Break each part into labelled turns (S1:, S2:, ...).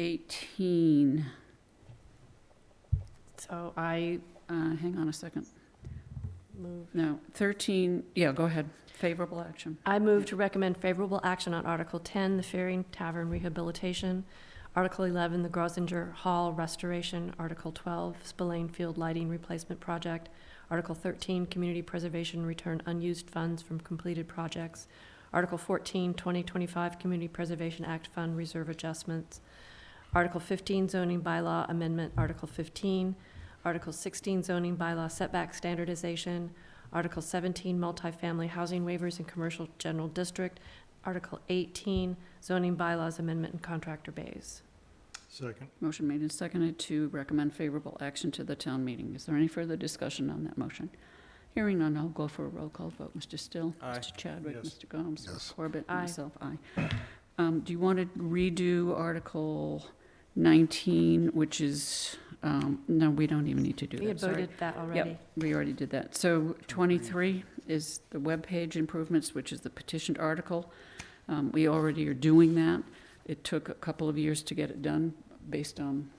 S1: 18. So I, uh, hang on a second.
S2: Move.
S1: No, 13, yeah, go ahead. Favorable action.
S2: I move to recommend favorable action on Article 10, the Faring Tavern rehabilitation, Article 11, the Grosinger Hall restoration, Article 12, Spillane Field lighting replacement project, Article 13, community preservation return unused funds from completed projects, Article 14, 2025 Community Preservation Act Fund reserve adjustments, Article 15, zoning bylaw amendment, Article 15, Article 16, zoning bylaw setback standardization, Article 17, multifamily housing waivers in commercial general district, Article 18, zoning bylaws amendment and contractor bays.
S3: Second.
S1: Motion made and seconded to recommend favorable action to the town meeting. Is there any further discussion on that motion? Hearing none, I'll go for a roll call vote. Mr. Still?
S3: Aye.
S1: Mr. Chadwick?
S3: Yes.
S1: Mr. Gomes?
S4: Yes.
S1: Corbett?
S2: Aye.
S1: Myself, aye. Um, Do you want to redo Article 19, which is, um, no, we don't even need to do
S2: We had
S1: that, sorry.
S2: voted that already.
S1: We already did that. So 23 is the webpage improvements, which is the petitioned article. Um, We already are doing that. It took a couple of years to get it done based on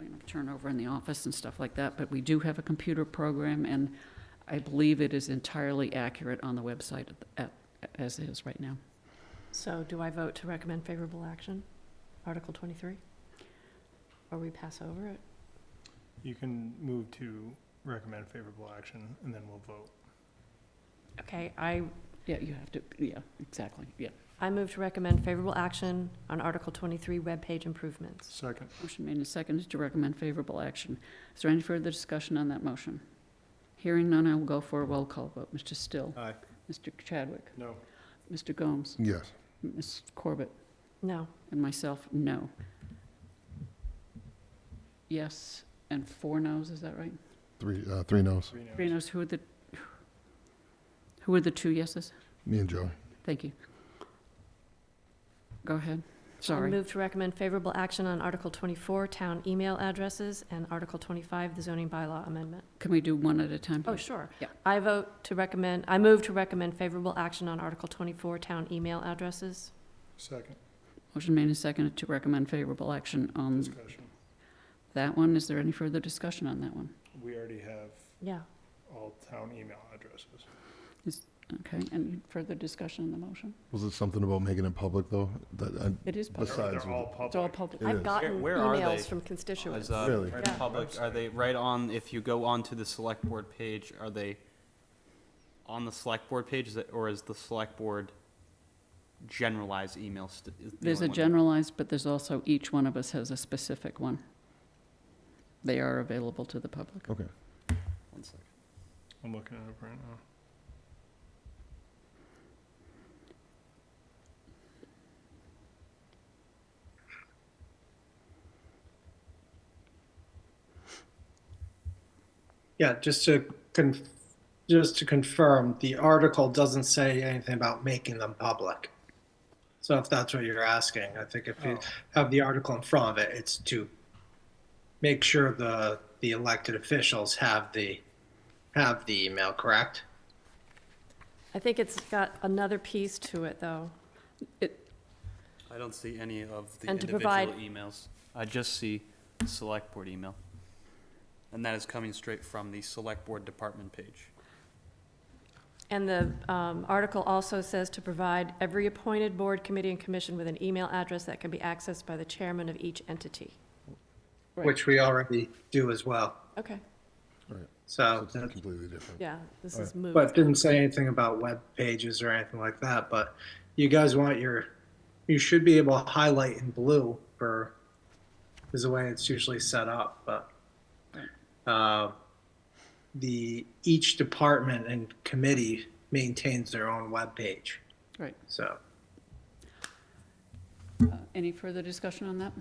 S1: you know, turnover in the office and stuff like that, but we do have a computer program, and I believe it is entirely accurate on the website at- at- as is right now.
S2: So do I vote to recommend favorable action, Article 23? Or we pass over it?
S3: You can move to recommend favorable action, and then we'll vote.
S2: Okay, I,
S1: Yeah, you have to, yeah, exactly, yeah.
S2: I move to recommend favorable action on Article 23, webpage improvements.
S3: Second.
S1: Motion made and seconded to recommend favorable action. Is there any further discussion on that motion? Hearing none, I will go for a roll call vote. Mr. Still?
S3: Aye.
S1: Mr. Chadwick?
S3: No.
S1: Mr. Gomes?
S4: Yes.
S1: Ms. Corbett?
S2: No,
S1: And myself, no. Yes, and four noes, is that right?
S4: Three, uh, three no's.
S3: Three noes.
S1: Three noes, who are the, who are the two yeses?
S4: Me and Joey.
S1: Thank you. Go ahead,
S2: I
S1: sorry.
S2: move to recommend favorable action on Article 24, town email addresses, and Article 25, the zoning bylaw amendment.
S1: Can we do one at a time?
S2: Oh,
S1: please?
S2: sure.
S1: Yeah.
S2: I vote to recommend, I move to recommend favorable action on Article 24, town email addresses.
S3: Second.
S1: Motion made and seconded to recommend favorable action on
S3: Discussion.
S1: that one. Is there any further discussion on that one?
S3: We already have
S2: Yeah.
S3: all town email addresses.
S1: Okay, any further discussion on the motion?
S4: Was it something about making it public though? That I,
S1: It is public,
S3: They're-
S4: Besides
S3: They're all
S1: it's all
S3: public.
S1: public.
S4: It
S2: I've
S4: is.
S2: gotten
S5: Where- where are
S2: emails
S5: they?
S2: from
S5: Is,
S2: constituents.
S5: uh,
S4: Really?
S3: Right
S2: Yeah.
S3: on the
S5: Public,
S3: website.
S5: are they right on, if you go onto the select board page, are they on the select board page, is it- or is the select board generalized email? st- is the
S1: There's a
S5: only one?
S1: generalized, but there's also, each one of us has a specific one. They are available to the public.
S4: okay.
S5: One second.
S3: I'm looking it up right now.
S6: Yeah, just to con, just to confirm, the article doesn't say anything about making them public. So if that's what you're asking, I think if you
S3: Oh.
S6: have the article in front of it, it's to make sure the, the elected officials have the, have the email, correct?
S2: I think it's got another piece to it, though.
S5: I don't see any of the
S2: And to
S5: individual
S2: provide-
S5: emails. I just see the select board email. And that is coming straight from the select board department page.
S2: And the um, article also says to provide every appointed board, committee, and commission with an email address that can be accessed by the chairman of each entity.
S1: Right.
S6: Which we already do as well.
S2: Okay,
S4: All right. So
S6: So,
S4: it's
S6: that's-
S4: completely different.
S2: yeah, this is moved.
S6: but it didn't say anything about web pages or anything like that, but you guys want your, you should be able to highlight in blue for, is the way it's usually set up, but, uh, the, each department and committee maintains their own web page.
S1: Right.
S6: so.
S1: Uh, Any further discussion on that?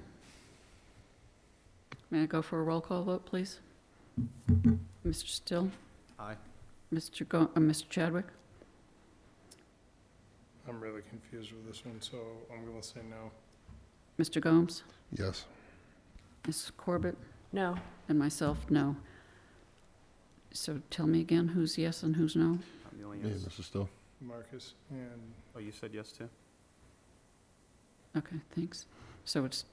S1: May I go for a roll call vote, please? Mr. Still?
S5: Aye.
S1: Mr. Go, uh, Mr. Chadwick?
S3: I'm really confused with this one, so I'm gonna say no.
S1: Mr. Gomes?
S4: Yes.
S1: Ms. Corbett?
S2: No,
S1: And myself, no. So tell me again, who's yes and who's no?
S5: I'm the only
S4: Me and
S5: yes.
S4: Mr. Still.
S3: Marcus and
S5: Oh, you said yes too?
S1: Okay, thanks. So it's